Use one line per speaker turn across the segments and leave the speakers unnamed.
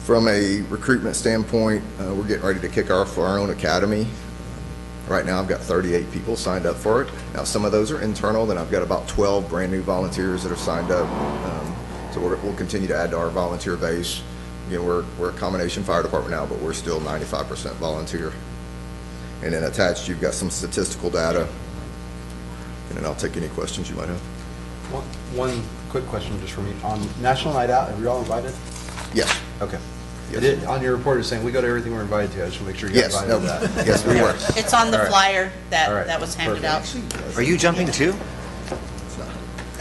From a recruitment standpoint, uh, we're getting ready to kick off our own academy. Right now, I've got 38 people signed up for it. Now, some of those are internal, then I've got about 12 brand-new volunteers that have signed up. Um, So we're- we'll continue to add to our volunteer base. Again, we're we're a combination fire department now, but we're still 95% volunteer. And then attached, you've got some statistical data, and then I'll take any questions you might have.
One, one quick question just for me. On National Night Out, have you all invited?
Yes,
Okay.
Yes.
It is- On your report, it's saying we go to everything we're invited to. I just want to make sure you got
yes, no,
invited to that.
yes, we were.
It's on the
All right.
flyer
All
that,
right.
that was handed out.
Are you jumping too?
It's not.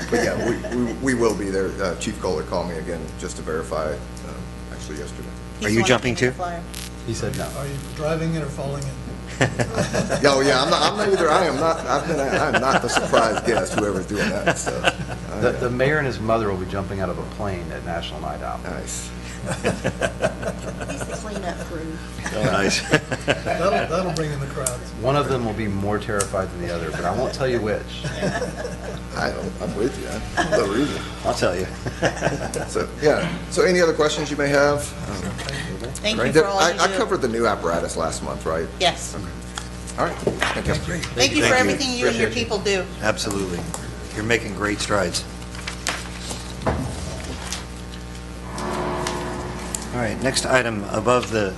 But yeah, we- we we will be there. Uh, Chief Kohler called me again just to verify, um, actually yesterday.
He's
Are you
the one that
jumping
handed the
too?
flyer.
He said no.
Uh,
Are you driving it or falling in?
Yeah, Oh, yeah, I'm not, I'm not either, I am not, I've been, I'm not the surprise guest, whoever's doing that, so. I,
The,
uh,
the mayor and his mother will be jumping out of a plane at National Night Out.
Nice.
He's the cleanup crew.
Nice.
That'll, that'll bring in the crowds.
One
uh,
of them will be more terrified than the other, but I won't tell you which.
I, I'm with you, I- no reason.
I'll tell you.
So, yeah, so any other questions you may have? Um,
Thank you
there-
for all
I-
you
I
do.
covered the new apparatus last month, right?
Yes.
All right, thank you.
Thank you for
Thank you.
everything you and your
Appreciate
people do.
Absolutely. You're making great strides. All right, next item, above the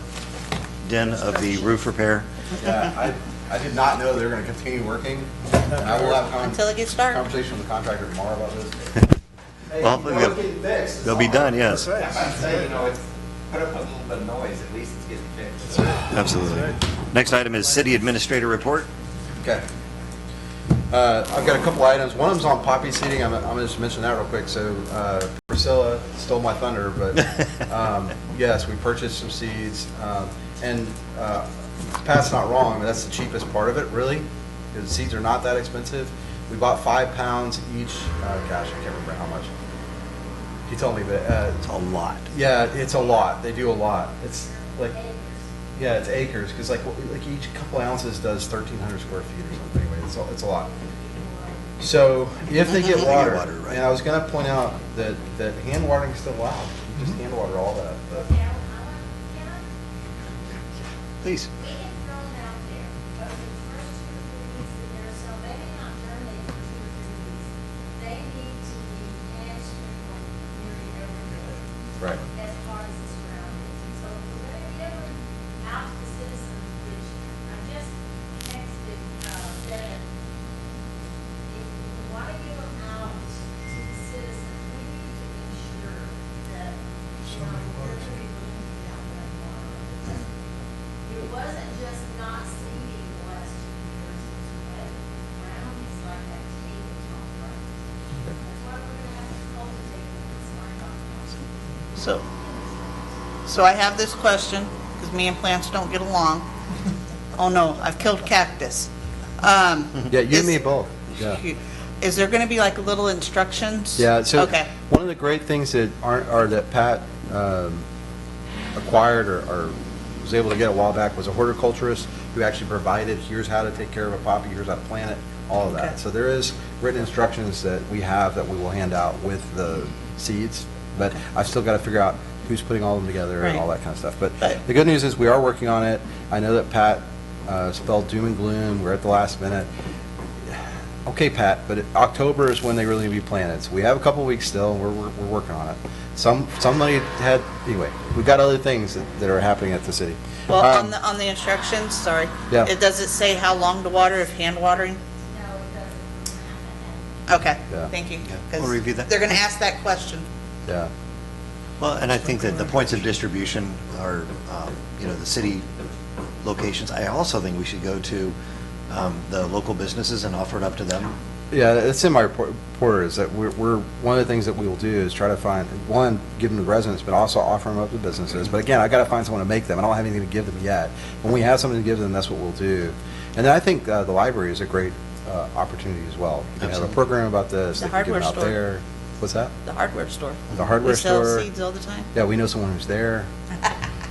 den of the roof repair.
Yeah, I, I did not know they were going to continue working. And I will have con-
Until it gets dark.
Conversation with the contractor tomorrow about this. Hey,
Well,
you know,
they'll-
it's getting fixed. It's
They'll be
all-
done, yes.
That's right.
I'd say, you know, it's, put up a little bit of noise, at least it's getting fixed.
Absolutely. Next item is city administrator report.
Okay. Uh, I've got a couple items. One of them's on poppy seeding. I'm, I'm gonna just mention that real quick. So, uh, Priscilla stole my thunder, but, um, yes, we purchased some seeds. Um, and, uh, Pat's not wrong. That's the cheapest part of it, really. Because seeds are not that expensive. We bought five pounds each. Uh, gosh, I can't remember how much. He told me, but, uh,
It's a lot.
yeah, it's a lot. They do a lot. It's like, yeah, it's acres because like what- like each couple ounces does thirteen hundred square feet or something. Anyway, it's a, it's a lot. So if they get
They get
water,
water, right.
and I was gonna point out that that hand watering is still allowed. You
Mm-hmm.
Just hand water all that. but-
Please.
They get thrown out there, but the first two or three weeks that they're, so they may not germinate for two or three weeks. They need to be hand sprinkled nearly every day.
Right.
As far as the surroundings, and so if we're gonna be able to out to the citizens, which I just texted, uh, Devin. If we wanna give them out to the citizens, we need to ensure that, you know, we're gonna be looking down that water. It wasn't just not seeding the last two years, it was wet ground is like that tabletop ground. That's why we're gonna have to cultivate this line up.
So, so I have this question, because me and plants don't get along. Oh no, I've killed cactus. Um,
Yeah, you
is-
and me both. Yeah.
Is there going to be like little instructions?
Yeah, so
Okay,
one of the great things that aren't, or that Pat um, acquired or, or was able to get a while back was a horticulturist who actually provided, here's how to take care of a poppy, here's how to plant it, all of
Okay.
that. So there is written instructions that we have that we will hand out with the seeds, but I've still got to figure out who's putting all of them together and all
Right.
that kind of stuff. But
But-
the good news is we are working on it. I know that Pat uh, spelled doom and gloom, we're at the last minute. Okay, Pat, but October is when they really need to be planted. So we have a couple weeks still, and we're, we're, we're working on it. Some, somebody had, anyway, we've got other things that, that are happening at the city.
well,
Um,
on the, on the instructions, sorry.
Yeah.
It does it say how long to water if hand watering?
No, it doesn't happen.
Okay,
Yeah.
thank you.
Yeah,
'cause
we'll review that.
They're going to ask that question.
Yeah,
Well, and I think that the points of distribution are, um, you know, the city locations. I also think we should go to um, the local businesses and offer it up to them.
yeah, that's in my report, report is that we're, we're, one of the things that we will do is try to find, one, give them to residents, but also offer them up to businesses. But again, I gotta find someone to make them. I don't have anything to give them yet. When we have something to give them, that's what we'll do. And then I think, uh, the library is a great, uh, opportunity as well. You can have a
Absolutely.
program about this,
The
they can give
hardware
them out
store.
there. What's that?
The hardware store.
The hardware store.
We sell seeds all the time.
Yeah, we know someone who's there.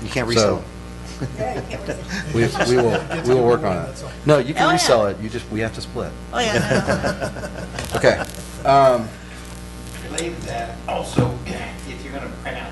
You can't
So-
resell.
We, we will, we will work on it. No, you
Oh,
can
yeah.
resell it, you just, we have to split.
Oh, yeah, no, no, no.
Okay. Um,
Believe that also, if you're gonna print out